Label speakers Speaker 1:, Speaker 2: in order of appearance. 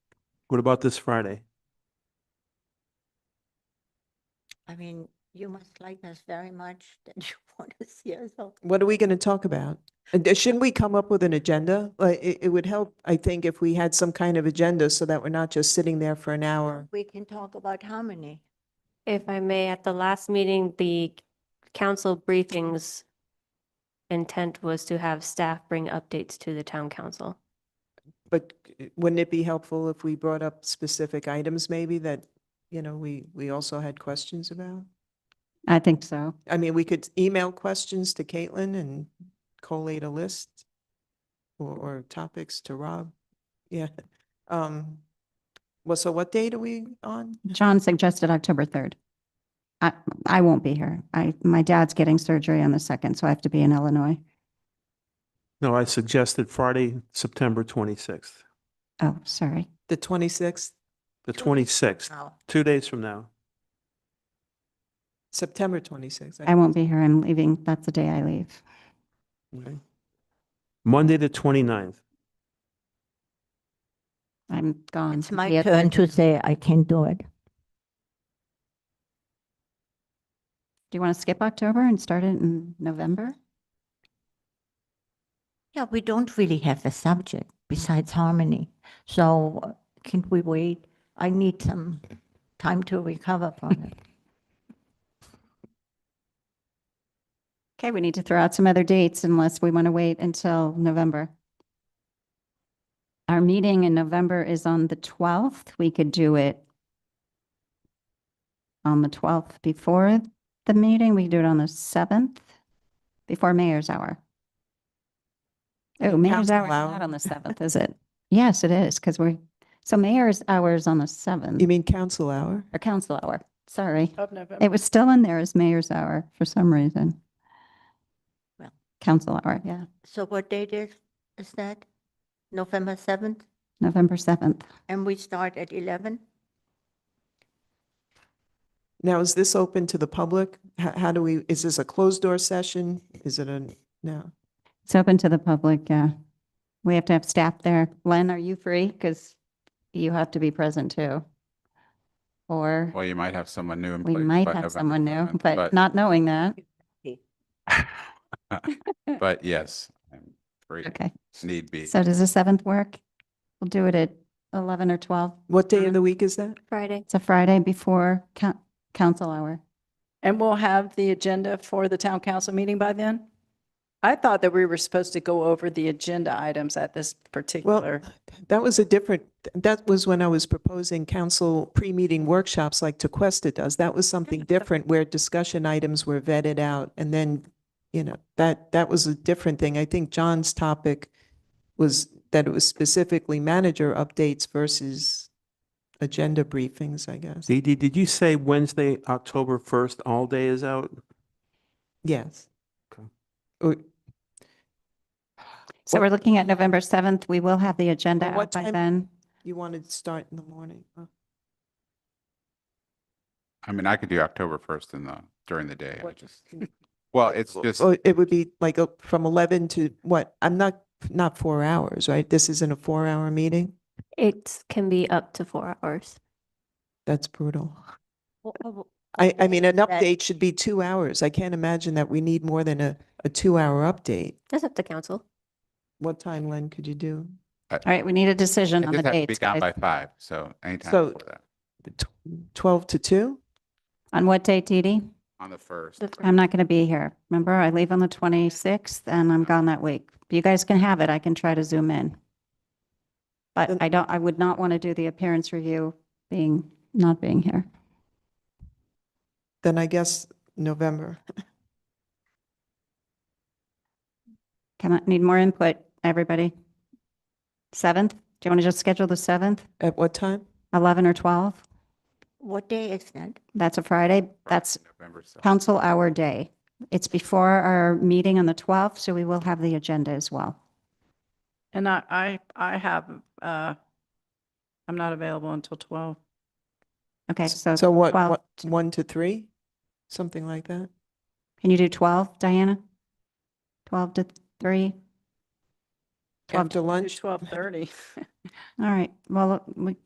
Speaker 1: What about this Friday?
Speaker 2: I mean, you must like us very much that you want to see us. all.
Speaker 3: What are we going to talk about? And uh, Shouldn't we come up with an agenda? Like, it, it would help, I think, if we had some kind of agenda so that we're not just sitting there for an hour.
Speaker 2: We can talk about harmony.
Speaker 4: If I may, at the last meeting, the council briefings intent was to have staff bring updates to the town council.
Speaker 3: But uh, wouldn't it be helpful if we brought up specific items maybe that, you know, we, we also had questions about?
Speaker 5: I think so.
Speaker 3: I mean, we could email questions to Caitlin and collate a list or, or topics to Rob. Yeah. Um, well, so what date are we on?
Speaker 5: John suggested October 3rd. I, I won't be here. I, my dad's getting surgery on the 2nd, so I have to be in Illinois.
Speaker 1: No, I suggested Friday, September twenty-sixth,
Speaker 5: Oh, sorry.
Speaker 3: The twenty-sixth,
Speaker 1: the twenty-sixth,
Speaker 2: Now,
Speaker 1: two days from now.
Speaker 3: September twenty-sixth.
Speaker 5: I won't be here. I'm leaving. That's the day I leave.
Speaker 1: Okay. Monday, the 29th.
Speaker 5: I'm gone.
Speaker 2: it's
Speaker 5: from
Speaker 2: my
Speaker 5: the-
Speaker 2: turn to say I can do it.
Speaker 5: Do you want to skip October and start it in November?
Speaker 2: Yeah, we don't really have a subject besides harmony. So uh, can we wait? I need some time to recover from it.
Speaker 5: Okay, we need to throw out some other dates unless we want to wait until November. Our meeting in November is on the 12th. We could do it on the 12th before the meeting. We could do it on the 7th before Mayor's Hour. Oh, Mayor's
Speaker 3: Council
Speaker 5: Hour is
Speaker 3: hour.
Speaker 5: not on the 7th, is it? Yes, it is, because we're, so Mayor's Hour is on the 7th,
Speaker 3: You mean council hour?
Speaker 5: or Council Hour, sorry.
Speaker 3: Of November.
Speaker 5: It was still in there as mayor's hour for some reason.
Speaker 2: Well.
Speaker 5: Council hour, yeah,
Speaker 2: So what date is, is that? November 7th?
Speaker 5: November 7th.
Speaker 2: And we start at 11?
Speaker 3: Now, is this open to the public? How, how do we, is this a closed door session? Is it a, no?
Speaker 5: It's open to the public, yeah. We have to have staff there. Len, are you free? Because you have to be present too. Or
Speaker 6: Well, you might have someone new in
Speaker 5: we
Speaker 6: place.
Speaker 5: might
Speaker 6: by
Speaker 5: have
Speaker 6: November
Speaker 5: someone new,
Speaker 6: 7th,
Speaker 5: but not knowing that.
Speaker 6: But yes, I'm free,
Speaker 5: Okay,
Speaker 6: need be.
Speaker 5: so does the 7th work? We'll do it at 11 or 12.
Speaker 3: What day of
Speaker 4: Mhm.
Speaker 3: the week is that?
Speaker 4: Friday.
Speaker 5: It's a Friday before coun- council hour.
Speaker 7: And we'll have the agenda for the town council meeting by then? I thought that we were supposed to go over the agenda items at this
Speaker 3: Well,
Speaker 7: particular.
Speaker 3: that was a different, that was when I was proposing council pre-meeting workshops like Tequesta does. That was something different where discussion items were vetted out and then, you know, that, that was a different thing. I think John's topic was that it was specifically manager updates versus agenda briefings, I guess.
Speaker 1: Dee Dee, did you say Wednesday, October first, all day is out?
Speaker 3: Yes.
Speaker 1: Okay.
Speaker 3: Or-
Speaker 5: So
Speaker 3: What-
Speaker 5: we're looking at November 7th. We will have the agenda
Speaker 3: Well, what
Speaker 5: out by
Speaker 3: time-
Speaker 5: then.
Speaker 3: You wanted to start in the morning. huh?
Speaker 6: I mean, I could do October first in the, during the day. I
Speaker 3: What- oh,
Speaker 6: just- Well, it's just,
Speaker 3: So it would be like uh, from 11 to what? I'm not, not four hours, right? This isn't a four-hour meeting?
Speaker 4: It can be up to four hours.
Speaker 3: That's brutal.
Speaker 2: Wha- wha-
Speaker 3: I, I mean, an
Speaker 2: That-
Speaker 3: update should be two hours. I can't imagine that we need more than a, a two-hour update.
Speaker 4: That's up to council.
Speaker 3: What time, Len, could you do?
Speaker 5: All right, we need a decision
Speaker 6: I
Speaker 5: on the
Speaker 6: just have to be
Speaker 5: dates.
Speaker 6: down by
Speaker 5: guys.
Speaker 6: five, so anytime
Speaker 3: So-
Speaker 6: before that,
Speaker 3: The tw- 12 to 2?
Speaker 5: On what date, Dee Dee?
Speaker 6: on the first.
Speaker 4: The
Speaker 5: I'm not going to be here. Remember, I leave on the 26th and I'm gone that week. You guys can have it. I can try to zoom in. But
Speaker 3: Then-
Speaker 5: I don't, I would not want to do the appearance review being, not being here.
Speaker 3: Then I guess November.
Speaker 5: Come on, need more input, everybody. 7th? Do you want to just schedule the 7th,
Speaker 3: At what time?
Speaker 5: 11 or 12?
Speaker 2: What day is that?
Speaker 5: That's a Friday. That's
Speaker 6: November seventh.
Speaker 5: council hour day. It's before our meeting on the 12th, so we will have the agenda as well.
Speaker 7: And I, I, I have, uh, I'm not available until 12.
Speaker 5: Okay, so.
Speaker 3: So what,
Speaker 5: 12
Speaker 3: what, 1 to 3? Something like that?
Speaker 5: Can you do 12, Diana? 12 to 3? 12
Speaker 3: After
Speaker 7: Do
Speaker 3: lunch?
Speaker 7: 12:30.
Speaker 5: All right, well, we